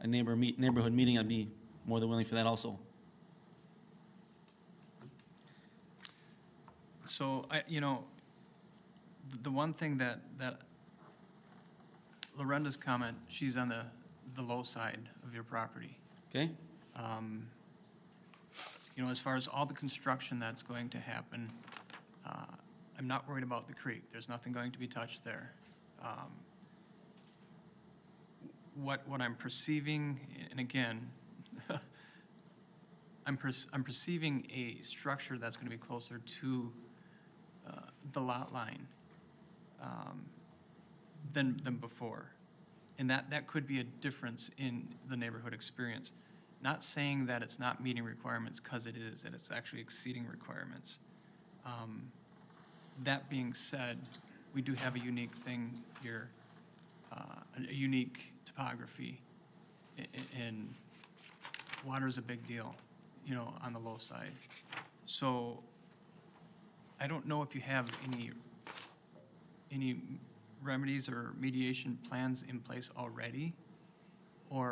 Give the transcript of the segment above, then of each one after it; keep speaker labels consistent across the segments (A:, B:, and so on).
A: a neighbor meet, neighborhood meeting, I'd be more than willing for that also.
B: So I, you know, th- the one thing that, that Lorenda's comment, she's on the, the low side of your property.
A: Okay?
B: Um, You know, as far as all the construction that's going to happen, uh, I'm not worried about the creek. There's nothing going to be touched there. Um, What, what I'm perceiving, and again, I'm perc- I'm perceiving a structure that's going to be closer to uh, the lot line um, than, than before. And that, that could be a difference in the neighborhood experience. Not saying that it's not meeting requirements, because it is, that it's actually exceeding requirements. Um, That being said, we do have a unique thing here, uh, a a unique topography, a- a- and water's a big deal, you know, on the low side. So I don't know if you have any any remedies or mediation plans in place already, or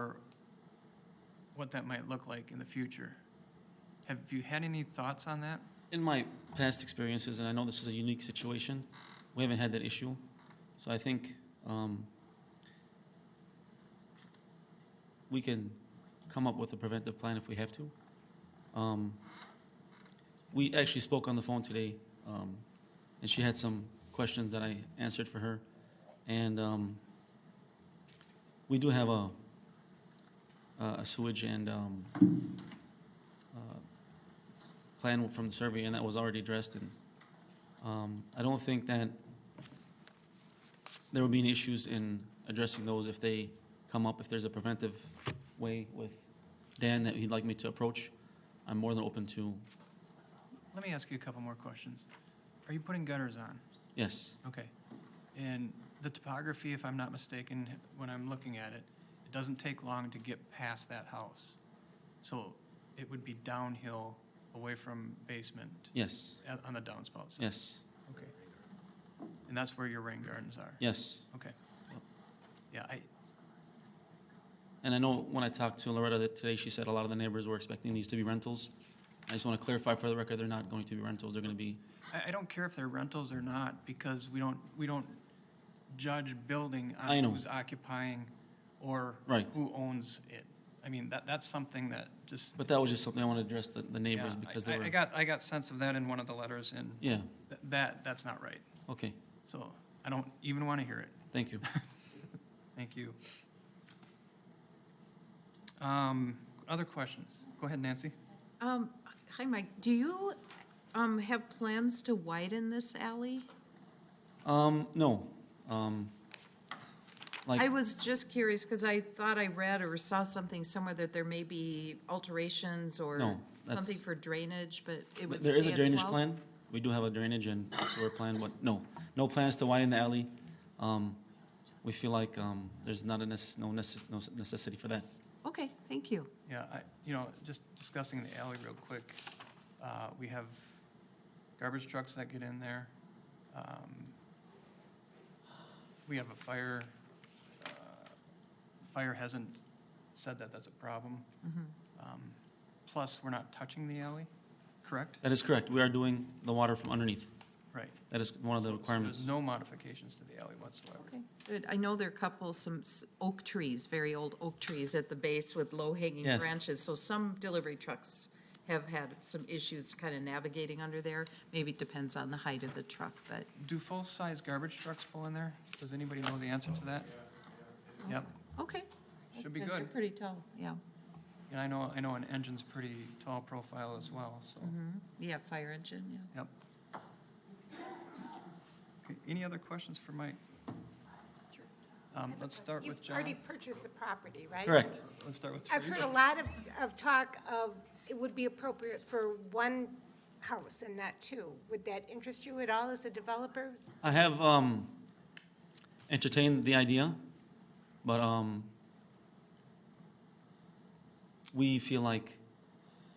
B: what that might look like in the future. Have you had any thoughts on that?
A: In my past experiences, and I know this is a unique situation, we haven't had that issue. So I think um, we can come up with a preventive plan if we have to. Um, We actually spoke on the phone today, um, and she had some questions that I answered for her. And um, we do have a a sewage and um, uh, plan from the survey, and that was already addressed, and um, I don't think that there will be any issues in addressing those if they come up, if there's a preventive way with Dan that he'd like me to approach, I'm more than open to,
B: Let me ask you a couple more questions. Are you putting gutters on?
A: yes,
B: Okay. And the topography, if I'm not mistaken, when I'm looking at it, it doesn't take long to get past that house. So it would be downhill away from basement
A: yes,
B: at- on the downspout side?
A: yes,
B: Okay. And that's where your rain gardens are?
A: yes.
B: Okay. Yeah, I,
A: And I know when I talked to Loretta that today, she said a lot of the neighbors were expecting these to be rentals. I just want to clarify for the record, they're not going to be rentals, they're going to be,
B: I, I don't care if they're rentals or not, because we don't, we don't judge building
A: I
B: on
A: know.
B: who's occupying or
A: Right.
B: who owns it. I mean, that, that's something that just.
A: but that was just something I want to address the the neighbors
B: Yeah, I-
A: because they
B: I-
A: were,
B: I got, I got sense of that in one of the letters, and
A: yeah,
B: th- that, that's not right.
A: okay,
B: So I don't even want to hear it.
A: thank you.
B: Thank you. Um, Other questions? Go ahead, Nancy.
C: Um, hi, Mike, do you, um, have plans to widen this alley?
A: Um, no. Um,
C: I
A: like,
C: was just curious, because I thought I read or saw something somewhere that there may be alterations or
A: No, that's-
C: something for drainage, but it would
A: there is
C: stay
A: a
C: at
A: drainage
C: 12?
A: plan. We do have a drainage and sewer plan, but no, no plans to widen the alley. Um, we feel like, um, there's not a necess, no necess, no necessity for that.
C: Okay, thank you.
B: Yeah, I, you know, just discussing the alley real quick, uh, we have garbage trucks that get in there. Um, We have a fire, uh, fire hasn't said that that's a problem. Um, Plus, we're not touching the alley, correct?
A: That is correct. We are doing the water from underneath.
B: Right.
A: That is one of the
B: So- so
A: requirements.
B: There's no modifications to the alley whatsoever.
C: Okay, good. I know there are a couple, some s- oak trees, very old oak trees at the base with low-hanging
A: Yes.
C: branches. So some delivery trucks have had some issues kind of navigating under there. Maybe it depends on the height of the truck, but
B: Do full-size garbage trucks pull in there? Does anybody know the answer to that? Yep,
C: Okay.
B: Should
C: That's
B: be
C: They're
B: good.
C: pretty tall, yeah.
B: and I know, I know an engine's pretty tall profile as well, so.
C: Yeah, fire engine, yeah.
B: Yep. Okay, Any other questions for Mike? Um, Let's start with
D: You've already
B: John.
D: purchased the property, right?
A: Correct.
B: Let's start with
D: I've heard
B: Teresa.
D: a lot of, of talk of it would be appropriate for one house and not two. Would that interest you at all as a developer?
A: I have, um, entertained the idea, but, um, we feel like,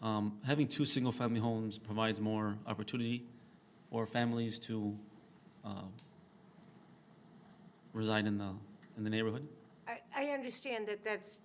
A: um, having two single-family homes provides more opportunity for families to, uh, reside in the, in the neighborhood.
D: I, I understand that that's